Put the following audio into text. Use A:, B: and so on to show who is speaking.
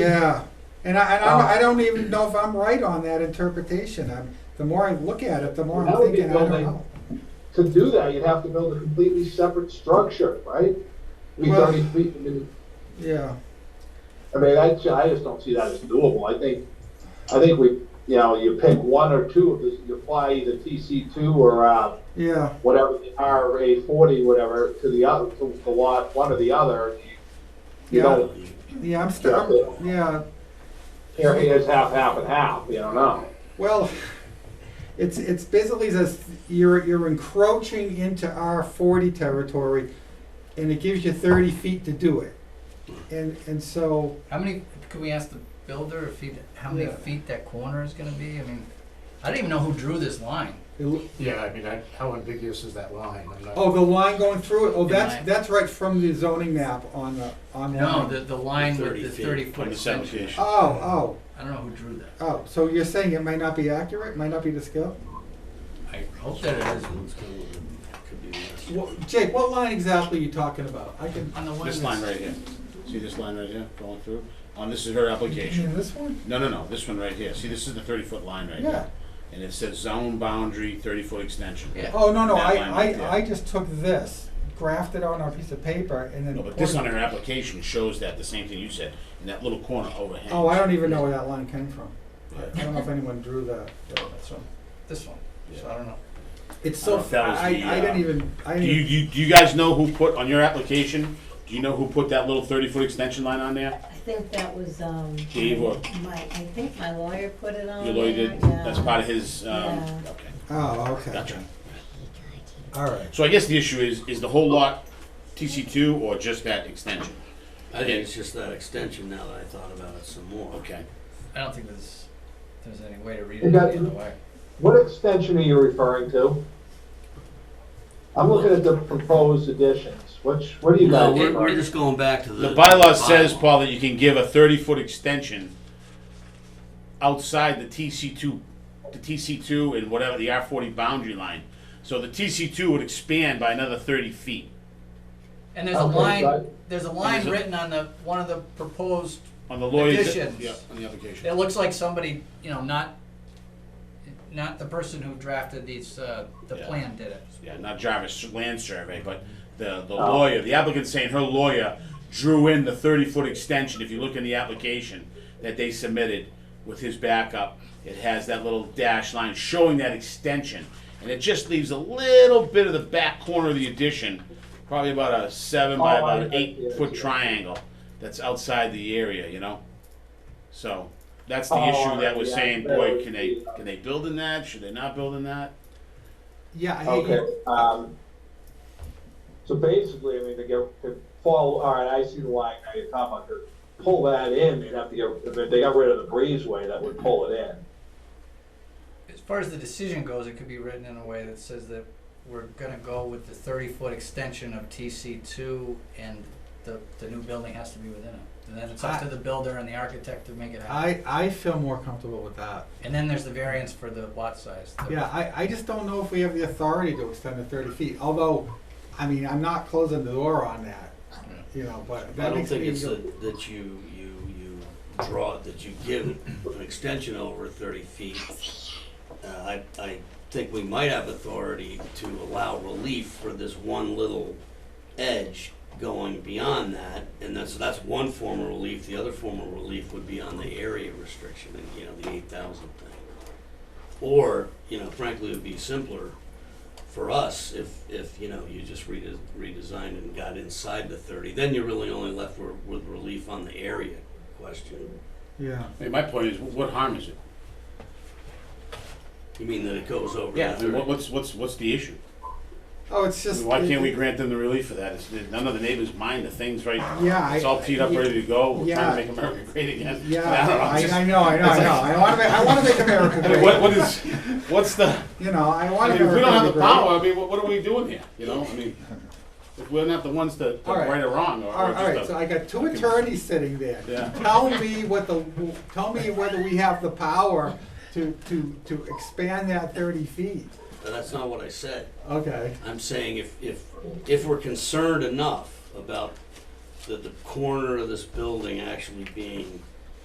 A: Yeah, and I, and I'm,
B: Um,
A: I don't even know if I'm right on that interpretation. I'm, the more I look at it, the more I'm
B: That would be
A: thinking, I don't
B: building-
A: know.
B: To do that, you'd have to build a completely separate structure, right? Be
A: Well-
B: thirty feet, I mean,
A: Yeah,
B: I mean, I, ju- I just don't see that as doable. I think, I think we, you know, you pick one or two of this, you apply either TC two or, uh,
A: yeah,
B: whatever, the RA forty, whatever, to the other, to the lot, one or the other. You
A: Yeah.
B: don't,
A: yeah. I'm still, I'm, yeah.
B: here, here's half, half and half, you don't know.
A: Well, it's it's basically says you're you're encroaching into our forty territory, and it gives you thirty feet to do it, and and so
C: How many, can we ask the builder if he, how many
A: Yeah.
C: feet that corner is gonna be? I mean, I don't even know who drew this line.
A: it, lo-
D: Yeah, I mean, I, how ambiguous is that line? I'm not-
A: oh the line going through it. Oh,
C: The
A: that's
C: line.
A: that's right from the zoning map on the on
C: No, the, the line with the thirty
E: on
C: foot
E: the
C: extension.
E: subdivision.
A: Oh oh.
C: I don't know who drew that.
A: Oh, so you're saying it might not be accurate, might not be the scale?
C: I hope that it is.
E: Could be less.
A: Wha- Jake, what line exactly are you talking about? I can,
C: On the one
E: This
C: that's.
E: line right here, see this line right here going through? On, this is her application.
A: in this one?
E: No, no, no, this one right here, see, this is the thirty foot line right
A: Yeah.
E: here. And it says zone boundary, thirty foot extension.
C: Yeah.
A: Oh, no, no,
E: That
A: I,
E: line right there.
A: I, I just took this, graphed it on our piece of paper and then.
E: No, but this on
A: poured-
E: her application shows that, the same thing you said, in that little corner overhang.
A: Oh, I don't even know where that line came from.
E: Yeah.
A: I don't know if anyone drew that. So
C: This one, so I
E: Yeah.
C: don't know.
A: It's
E: I don't
A: so,
E: know if that was
A: I,
E: the,
A: I
E: uh,
A: didn't even, I
E: Do you,
A: didn't,
E: you, do you guys know who put, on your application, do you know who put that little thirty foot extension line on there?
F: I think that was, um.
E: Dave or-
F: My, I think my lawyer put it on
E: Your lawyer
F: there,
E: did,
F: Oh, yeah.
E: that's part of his, um,
F: Yeah.
E: okay,
A: oh, okay,
E: gotcha.
A: all right.
E: So I guess the issue is, is the whole lot TC two or just that extension?
G: I think it's just that extension now that I thought about it some more.
E: Okay.
C: I don't think there's, there's any way to read
B: You
C: it the
B: got
C: other
B: it.
C: way.
B: What extension are you referring to? I'm looking at the proposed additions, which, what do you
G: No,
B: guys?
G: we're, we're just going back to the.
E: The bylaw says,
G: bylaw.
E: Paul, that you can give a thirty foot extension outside the TC two, the TC two and whatever, the R forty boundary line. So the TC two would expand by another thirty feet.
C: And there's a
B: Okay,
C: line,
B: right.
C: there's a line
E: Is it-
C: written on the, one of the proposed,
E: On the lawyer's.
C: Additions.
E: Yeah, on the application.
C: it looks like somebody, you know, not, not the person who drafted these, uh, the
E: Yeah.
C: plan did it.
E: yeah, not Jarvis Land Survey, but the, the
B: Oh.
E: lawyer, the applicant's saying her lawyer drew in the thirty foot extension, if you look in the application that they submitted with his backup, it has that little dash line showing that extension, and it just leaves a little bit of the back corner of the addition, probably about a seven by
B: Oh, I-
E: about an
B: I-
E: eight foot
B: yeah.
E: triangle that's outside the area, you know? So, that's the
B: Oh,
E: issue that was
B: yeah,
E: saying,
B: that
E: boy,
B: would
E: can they,
B: be-
E: can they build in that, should they not build in that?
A: Yeah, I
B: Okay,
A: think,
B: um, so basically, I mean, to get, to follow, all right, I see the line now you're talking about, to pull that in, they'd have to get, if they got rid of the breezeway, that would pull it in.
C: As far as the decision goes, it could be written in a way that says that we're gonna go with the thirty-foot extension of TC two and the, the new building has to be within it. And then it's up to the builder and the architect to make it happen.
A: I, I feel more comfortable with that.
C: And then there's the variance for the lot size.
A: Yeah, I, I just don't know if we have the authority to extend to thirty feet, although, I mean, I'm not closing the door on that, you know, but
G: I
A: that
G: don't
A: makes me.
G: think it's that, that you, you, you draw, that you give an extension over thirty feet. Uh, I, I think we might have authority to allow relief for this one little edge going beyond that. And that's, that's one form of relief. The other form of relief would be on the area restriction, and, you know, the eight thousand thing. Or, you know, frankly, it would be simpler for us, if, if, you know, you just rede- redesigned and got inside the thirty, then you're really only left with, with relief on the area question.
A: Yeah,
E: I mean, my point is, what harm is it?
G: You mean that it goes over
E: Yeah, I
G: the
E: mean, what-
G: thirty?
E: what's, what's, what's the issue?
A: oh, it's
E: I
A: just.
E: mean, Why
A: it-
E: can't we
A: it-
E: grant them the relief for that? It's, none of the neighbors mind the things right,
A: Yeah,
E: it's
A: I-
E: all teed up,
A: yeah.
E: ready to go, we're trying to
A: Yeah.
E: make America great again.
A: Yeah,
E: I don't know,
A: I,
E: just-
A: I know, I know, I know. I want to make, I want to make America
E: I mean,
A: great.
E: what, what is, what's the,
A: you know, I
E: I
A: want
E: mean,
A: to.
E: if we don't have the power, I mean, what, what are we doing here, you know, I mean, if we're not the ones to, to
A: All right.
E: right or wrong, or
A: All
E: or
A: right, all right.
E: just
A: So
E: a.
A: I got two attorneys sitting there.
E: Yeah.
A: Tell me what the, tell me whether we have the power to to to expand that thirty feet.
G: But That's not what I said.
A: Okay.
G: I'm saying if, if, if we're concerned enough about the, the corner of this building actually being